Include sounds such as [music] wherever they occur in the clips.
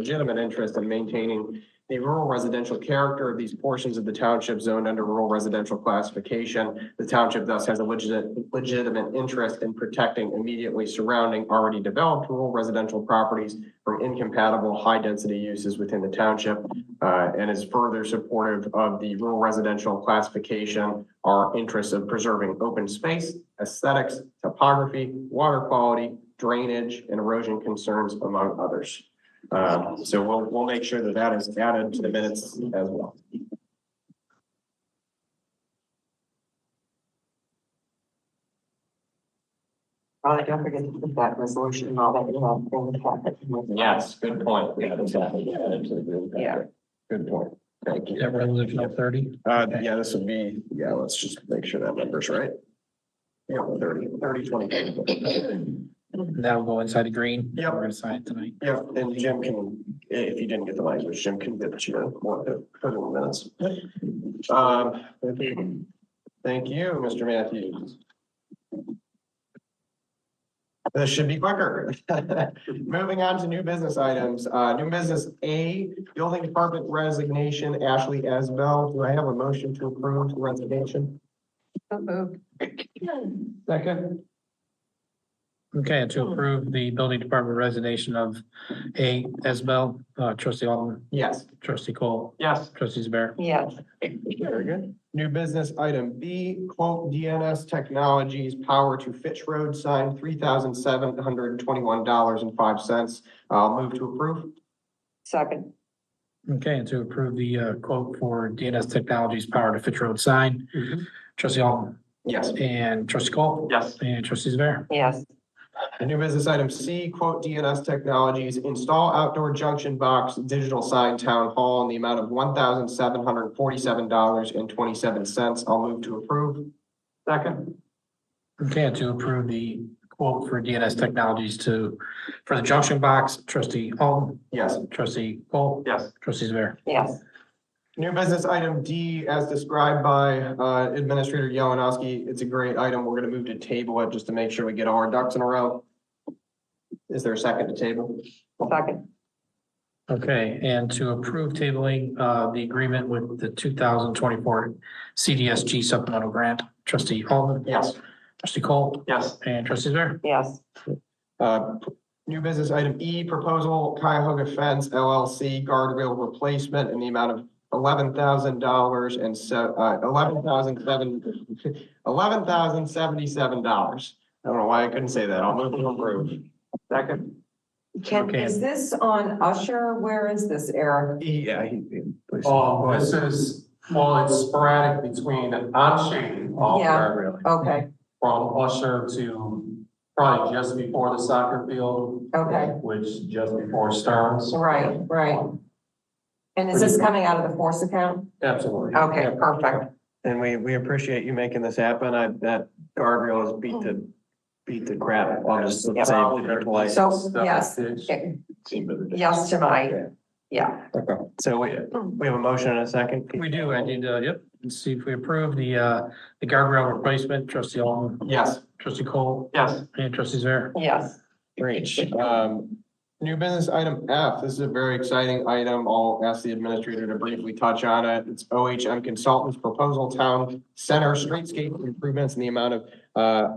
legitimate interest in maintaining the rural residential character of these portions of the township zoned under rural residential classification. The township thus has a legitimate, legitimate interest in protecting immediately surrounding already developed rural residential properties from incompatible high-density uses within the township, uh, and is further supportive of the rural residential classification, our interests of preserving open space, aesthetics, topography, water quality, drainage, and erosion concerns, among others. Um, so we'll, we'll make sure that that is added to the minutes as well. Probably don't forget to put that resolution and all that in the packet. Yes, good point. Yeah. Good point. Thank you. Yeah, resolution number thirty. Uh, yeah, this would be, yeah, let's just make sure that number's right. Yeah, thirty, thirty, twenty. That will go inside the green. Yep. We're gonna sign it tonight. Yeah, and Jim can, if you didn't get the language, Jim can get you more than thirty minutes. Um, Thank you, Mr. Matthews. This should be quicker. [laughs] Moving on to new business items, uh, new business A, building department resignation, Ashley Asbell. Do I have a motion to approve resignation? Second. Oh. Okay, to approve the building department resignation of A, Isabel, uh, trustee Alderman, Yes. trustee Cole, Yes. trustees Bear. Yes, Very good. New business item B, quote DNS Technologies Power to Fitch Road sign, three thousand seven hundred twenty-one dollars and five cents. Uh, I'll move to approve. second, Okay, and to approve the, uh, quote for DNS Technologies Power to Fit Road sign, Mm-hmm. trustee Alderman Yes. and trustee Cole. Yes. And trustees Bear. yes, New business item C, quote DNS Technologies Install Outdoor Junction Box Digital Sign Town Hall in the amount of one thousand seven hundred forty-seven dollars and twenty-seven cents. I'll move to approve. Second. Okay, and to approve the quote for DNS Technologies to, for the junction box, trustee Alderman, Yes. trustee Cole, Yes. trustees Bear. yes, New business item D, as described by uh, Administrator Yalanowski, it's a great item. We're going to move to table it just to make sure we get all our ducks in a row. Is there a second to table? second, Okay, and to approve tabling uh the agreement with the two thousand twenty-four CDSG supplemental grant, trustee Alden. Yes. Trustee Cole Yes. and trustees Bear. yes, Uh, New business item E, proposal Cuyahoga Fence LLC guardrail replacement in the amount of eleven thousand dollars and so, uh, eleven thousand seven, [laughs] eleven thousand seventy-seven dollars. I don't know why I couldn't say that. I'll move to approve. Second. Ken, Okay. is this on Usher? Where is this, Eric? E, Yeah. he- please. Oh, this is, well, it's sporadic between on-chain off Yeah. guardrail Okay, from Usher to probably just before the soccer field. Okay. Which just before Stearns. right, right. And is this coming out of the force account? Absolutely. Okay, perfect. And we, we appreciate you making this happen. I, that guardrail is beat the, beat the crap. I'll just say it polite. So, Stuff yes. is- Okay, Yes to my, yeah, Okay. So we, we have a motion and a second. We do, I did, uh, yep, let's see if we approve the uh the guardrail replacement, trustee Alden, Yes. trustee Cole Yes. and trustees Bear. yes, Great. Um, new business item F, this is a very exciting item. I'll ask the administrator to briefly touch on it. It's OHM Consultants Proposal Town Center Streetscape Improvements in the amount of, uh,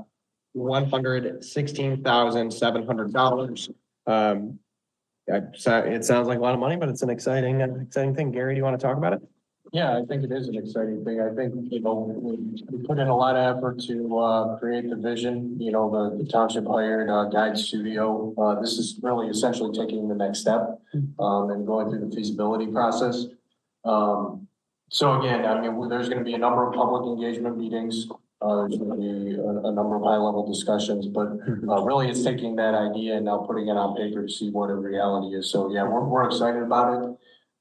one hundred sixteen thousand seven hundred dollars. Um, I, so it sounds like a lot of money, but it's an exciting, an exciting thing. Gary, do you want to talk about it? Yeah, I think it is an exciting thing. I think, you know, we, we put in a lot of effort to, uh, create the vision, you know, the the township hired, uh, guide studio. Uh, this is really essentially taking the next step, um, and going through the feasibility process. Um, so again, I mean, there's gonna be a number of public engagement meetings. Uh, there's gonna be a, a number of high-level discussions, but, uh, really it's taking that idea and now putting it on paper to see what a reality is. So, yeah, we're, we're excited about it.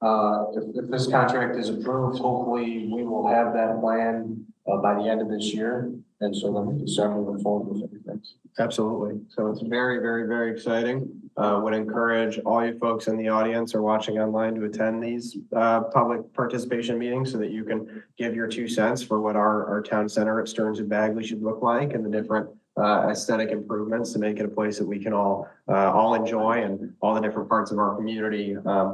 Uh, if, if this contract is approved, hopefully we will have that plan, uh, by the end of this year. And so then we can start moving forward with everything. Absolutely. So it's very, very, very exciting. Uh, would encourage all you folks in the audience or watching online to attend these, uh, public participation meetings so that you can give your two cents for what our, our town center at Stearns and Bagley should look like and the different, uh, uh, aesthetic improvements to make it a place that we can all, uh, all enjoy and all the different parts of our community, um,